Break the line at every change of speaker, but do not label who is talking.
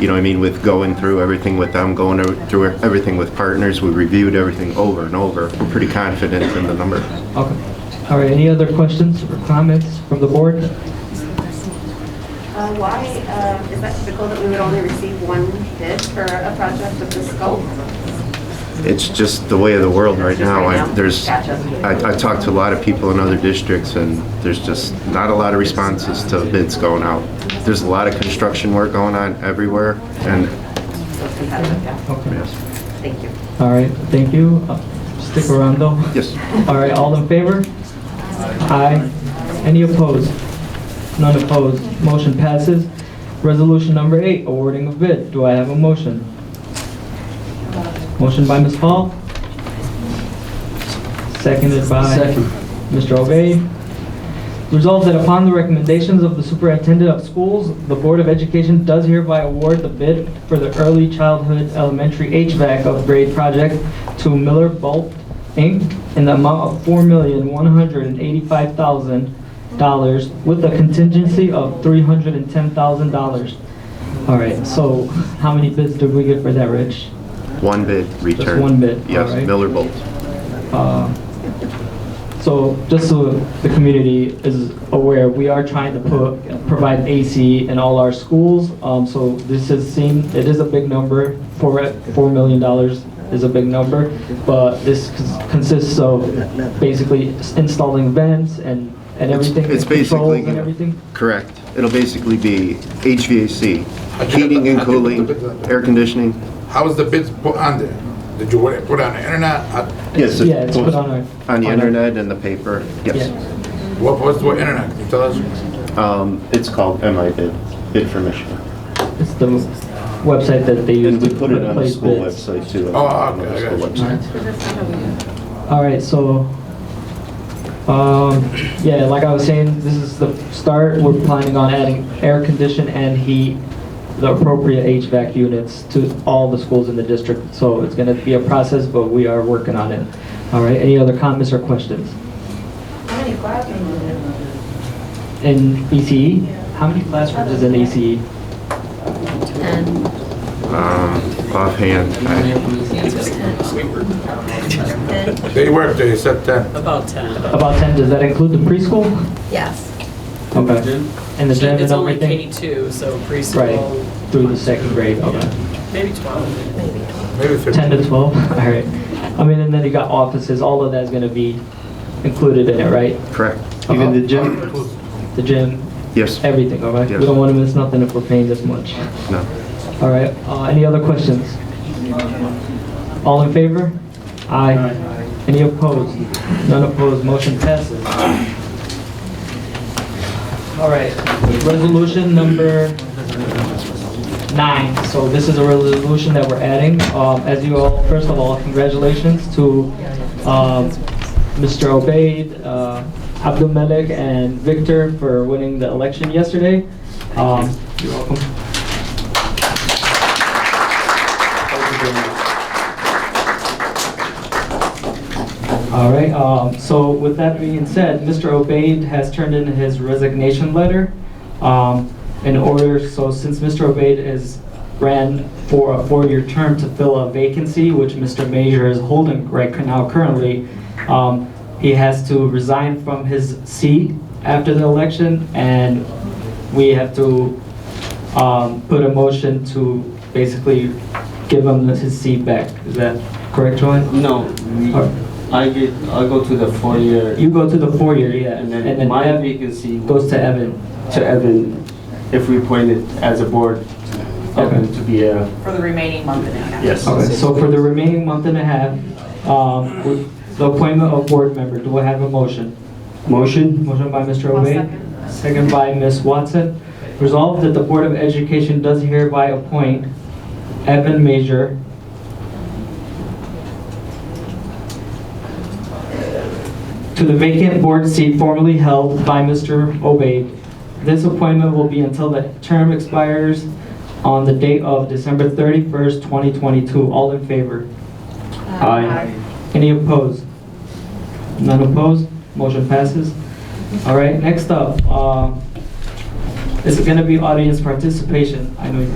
you know what I mean, with going through everything with them, going over- through everything with partners. We reviewed everything over and over. We're pretty confident in the numbers.
Okay. All right, any other questions or comments from the board?
Uh, Why uh, is that typical that we would only receive one bid for a project of this scope?
It's just the way of the world right
Just
now.
right
I-
now?
There's,
Gotcha.
I I talked to a lot of people in other districts, and there's just not a lot of responses to bids going out. There's a lot of construction work going on everywhere, and,
So it's competitive, yeah.
Okay.
yes.
Thank you.
All right, thank you. Uh, Stick around though.
Yes.
All right, all in favor? Aye. Any opposed? None opposed. Motion passes. Resolution number eight, awarding of bid. Do I have a motion? Motion by Ms. Hall. Seconded by Mr. O'Bey. Resolved that upon the recommendations of the superintendent of schools, the Board of Education does hereby award the bid for the early childhood elementary HVAC upgrade project to Miller Bolt, Inc. in the amount of $4,185,000 with a contingency of $310,000. All right, so how many bids did we get for that, Rich?
One bid returned.
one bid,
Yes,
alright.
Miller Bolt.
Uh, So just so the community is aware, we are trying to put, provide AC in all our schools. Um, So this is seen, it is a big number, four, four million dollars is a big number. But this cons- consists of basically installing vents and, and everything.
It's
controls
basically,
And everything.
correct. It'll basically be HVAC, heating and cooling, air conditioning.
How was the bids put on there? Did you put it put on the internet? Uh,
Yes.
Yeah, it's put on our.
On the
our-
internet and the paper, yes.
Yeah.
What was the internet? Can you tell us?
Um, It's called MI bid, bid for Michigan.
It's the website that they use.
And we
to
put it on the
place
school
bids.
website too.
Oh,
on the
okay, I
school
got you.
website.
All right, so, um, yeah, like I was saying, this is the start. We're planning on adding air condition and heat, the appropriate HVAC units to all the schools in the district. So it's gonna be a process, but we are working on it. All right, any other comments or questions? In ECE? How many classrooms is in E ECE?
Um, offhand, I,
They worked, they said 10.
About 10.
About 10, does that include the preschool?
Yes.
Okay. And the gym and
It's only
everything?
K-2, so
Right,
preschool,
through the second grade, okay.
maybe 12.
Maybe
10 to
15.
12, all right. I mean, and then you got offices, all of that's gonna be included in it, right?
correct.
Even the gym? The gym,
Yes,
everything, all right? We
Yes.
don't wanna miss nothing if we're paying this much.
no.
All right, uh, any other questions? All in favor? Aye. Any opposed? None opposed, motion passes. All right, resolution number nine. So this is a resolution that we're adding. Um, As you all, first of all, congratulations to um, Mr. Obaid, uh, Abdul Malik, and Victor for winning the election yesterday. Um, You're welcome. All right, um, so with that being said, Mr. Obaid has turned in his resignation letter um, in order, so since Mr. Obaid is, ran for a four-year term to fill a vacancy, which Mr. Major is holding right now currently, um, he has to resign from his seat after the election, and we have to um, put a motion to basically give him his seat back. Is that correct, Joanne?
No, we,
Or-
I get, I go to the four-year,
You go to the four-year, yeah,
and then my
Evan
vacancy
goes to Evan.
to Evan, if we appoint it as a board, Evan to be a,
For the remaining month and a half.
yes.
Okay, so for the remaining month and a half, um, with the appointment of board member, do I have a motion?
Motion?
Motion by Mr.
I'll
Obey.
second.
Second by Ms. Watson. Resolved that the Board of Education does hereby appoint Evan Major. To the vacant board seat formerly held by Mr. Obey. This appointment will be until the term expires on the date of December 31st, 2022. All in favor? Any opposed? None opposed? Motion passes. uh, All right, next up, um, is going to be audience participation. I know